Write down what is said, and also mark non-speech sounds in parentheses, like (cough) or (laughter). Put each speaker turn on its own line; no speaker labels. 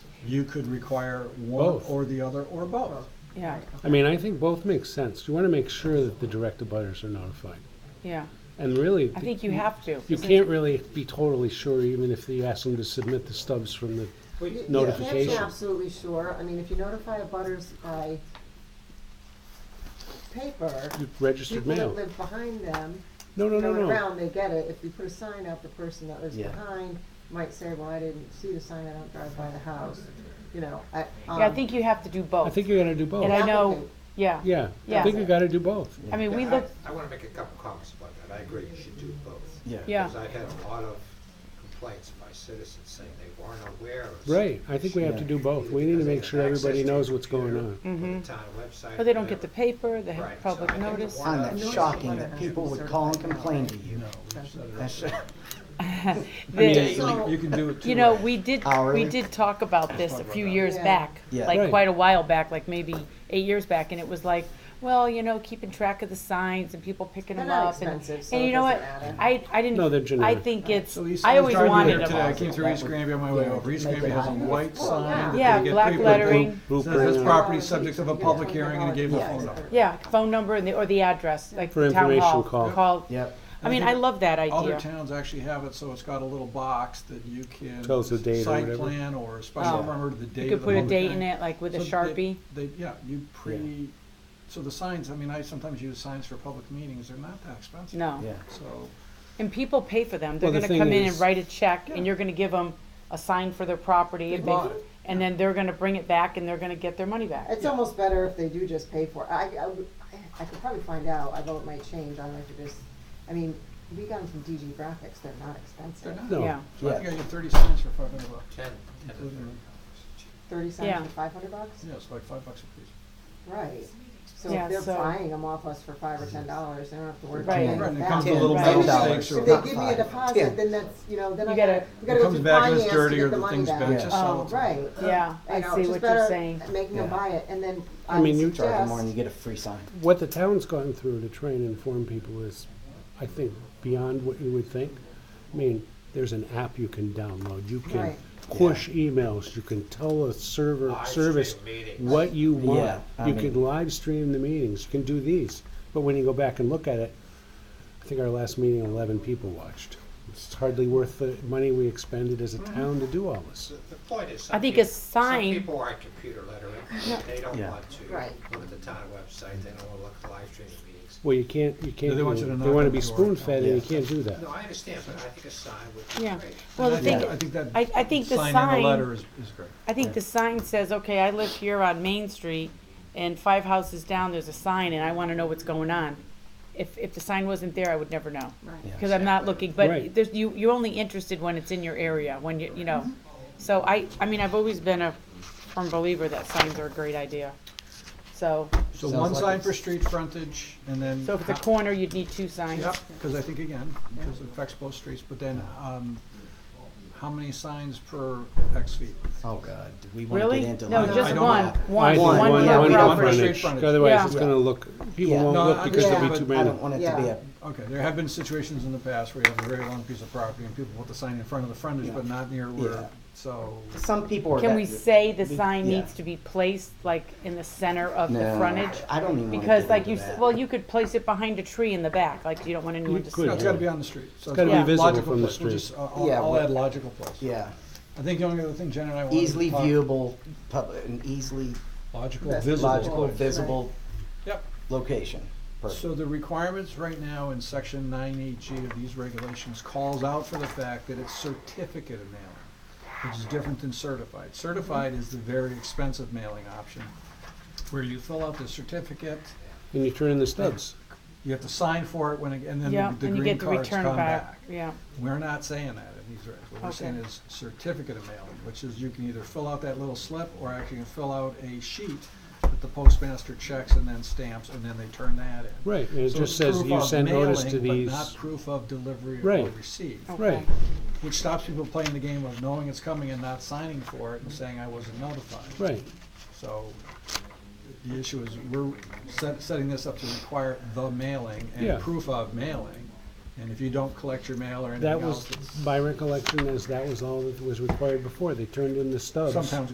you could require one
Both.
or the other or both.
yeah,
I mean, I think both make sense. You want to make sure that the direct abutters are notified.
yeah.
And really,
I think you have to.
you can't really be totally sure, even if you ask them to submit the stubs from the,
You- You
Notification.
can't be absolutely sure, I mean, if you notify a butters by paper,
the registered
people that
mail.
live behind them,
No, no, no,
going
no.
around, they get it, if you put a sign up, the person that lives
Yeah.
behind might say, well, I didn't see the sign, I don't drive by the house, you know, I, um.
Yeah, I think you have to do both.
I think you gotta do
And I
both.
know,
Applicant.
yeah,
Yeah, I
Yeah.
think you gotta do both.
I mean, we
Yeah, I-
look,
I want to make a couple comments about that. I agree, you should do both.
Yeah.
Yeah.
Because I've had a lot of complaints by citizens saying they weren't aware of. some
Right, I think we have to
Yeah.
do both. We need to make sure everybody knows what's going on.
Or the town website.
Mm-hmm. but they don't get the
whatever.
paper, they have
Right, so I
public
think
notice.
one
Find
of
that
the-
shocking that people would call and complain to you. That's, (laughs)
The-
So-
You can do it two
You know,
ways.
we did, we
Hourly.
did talk about this a few years
Yeah.
back,
Yeah.
like
Right.
quite a while back, like maybe eight years back, and it was like, well, you know, keeping track of the signs and people picking
They're
them
not
up. and-
expensive, so
And
it
you know what,
doesn't matter.
I, I
No, they're
didn't, I
generic.
think it's,
So Lisa
I
was
always
driving
wanted
here
them
today. I
all.
came through East Granby on my way
Yeah.
over. East
Make
Granby
it
has a
hot.
white sign. that
Yeah,
they get
black
people to-
lettering.
Says this property subject of a public hearing and it gave the phone number.
Yeah, phone number and the, or the address, like
For
the town hall.
information call.
yep,
I mean, I love that
Other
idea.
towns actually have it, so it's got a little box that you can.
Tells the date or
Site
whatever.
plan or
Oh.
special permit, or the date
You
of
could
the
put a
public
date in
hearing.
it, like with a
So they-
Sharpie.
They, yeah, you pre, so the signs, I mean, I sometimes use signs for public meetings, they're not that expensive.
No.
yeah.
So,
And people pay for them. They're
Well, the
gonna
thing
come in and
is-
write a check
Yeah.
and you're gonna give them a sign for their property. if
They bought it.
And then they're gonna bring it back and they're gonna get their money back.
It's almost better if they do just pay for it. I, I, would- I could probably find out, although it might change, I might just, I mean, we got them from DG Graphics, they're not
they're
expensive.
not.
No.
Yeah.
So I
Yeah.
think I get thirty cents for five hundred bucks,
Ten, ten to
Mhm.
thirty.
Thirty
Yeah.
cents for five hundred bucks?
yeah, it's like five bucks a piece.
Right. So
Yeah,
if they're
so-
buying them off us for five or ten dollars, they don't have to worry about
Right.
paying
Right,
it
and it comes with
back.
a little
Right.
metal
If they-
stakes or
If
whatever.
they give me a deposit, then that's, you know, then I
You
gotta,
gotta-
we gotta
It
go
comes
through
back and
finance
it's
to
dirty or
get the
the
money
thing's
back.
bad, just sell
Oh,
it to them.
Right.
Yeah, I
know,
see
just
what you're
better
saying.
Making them
Yeah.
buy it and then
I
I would
mean, you-
Charge them more and you
suggest,
get a free sign.
What the town's gone through to try and inform people is, I think, beyond what you would think. I mean, there's an app you can download, you can
Right.
push emails, you can tell a server,
Live
service
stream meetings.
what you
Yeah,
want.
I
You
mean-
can live stream the meetings, you can do these, but when you go back and look at it, I think our last meeting, eleven people watched. It's hardly worth the money we expended as a town to do all this.
The the point is,
I
some
think
peop-
a sign-
Some people aren't computer literate. They don't
Yeah.
want to
Right.
look at the town website. They don't want to look at live streaming meetings.
Well, you can't, you can't,
they
do
want you to
it.
knock
they wanna
on
be
the door.
spoon fed and you can't do that.
No, I understand, but I think a sign would be
Yeah.
great.
Well, the
And I think- I
thing,
think that
I, I think the
sign in the letter
sign,
is, is great.
I think the sign says, okay, I live here on Main Street and five houses down, there's a sign and I wanna know what's going on. If, if the sign wasn't there, I would never know.
Yeah.
Cause I'm not looking, but
Right.
there's, you, you're only interested when it's in your area, when you, you know. So I, I mean, I've always been a firm believer that signs are a great idea. So,
So
Sounds
one
like
sign
it's-
for street frontage and then.
so if it's a
ho-
corner, you'd need two signs.
Yep, because I think again, because it affects both streets, but then, um, how many signs per X feet?
Oh, God, do we wanna
Really?
get into
No,
like?
I
just
don't
one,
know.
I
one,
think
one
One. One,
per
one, one.
property.
street frontage.
Otherwise, it's
Yeah.
gonna look, people
Yeah.
won't
No,
look
I
because there'll be
understand,
too
but
I
many.
don't want it to be a,
Okay, there have been situations in the past where you have a very long piece of property and people put the sign in front of the frontage, but not near
Yeah.
where, so.
some people are.
Can
that-
we say the sign
yeah.
needs to be placed like in the center of the
No,
frontage?
I don't even wanna
Because
get
like
into
you, s-
that.
well, you could place it behind a tree in the back, like you don't want anyone to see.
could.
No,
it.
It's gotta be on the street. So
It's gotta
be
a
visible
logical
from the
place. We'll
street.
just- I'll- I'll,
Yeah,
I'll
well-
add logical place.
Yeah,
I think the only other thing Jen and I wanted to
easily
talk-
viewable, public, an easily
Logical,
That's
visible.
logical,
place.
visible
Yep.
location. Perfect.
So the requirements right now in section nine eight G of these regulations calls out for the fact that it's certificate of mailing, which is different than certified. Certified is the very expensive mailing option, where you fill out the certificate,
And you turn in the stubs.
you have to sign for it when, it- and then
Yeah,
the
and you
green
get the
cards
return
come
back,
back.
yeah.
We're not saying that in these regs. What we're saying
Okay.
is certificate of mailing, which is you can either fill out that little slip or actually you can fill out a sheet that the postmaster checks and then stamps, and then they turn that in.
Right, and it
So
just
it's
says
proof
you
of
send notice to
mailing,
these.
But not proof of delivery or
Right.
receipt,
Right,
which stops people playing the game of knowing it's coming and not signing for it and saying I wasn't notified.
right.
So the issue is we're set, setting this up to require the mailing
Yeah.
and proof of mailing. And if you don't collect your mail or anything
That was,
else, it's
my recollection is that was all that was required before. They turned in the stubs.
sometimes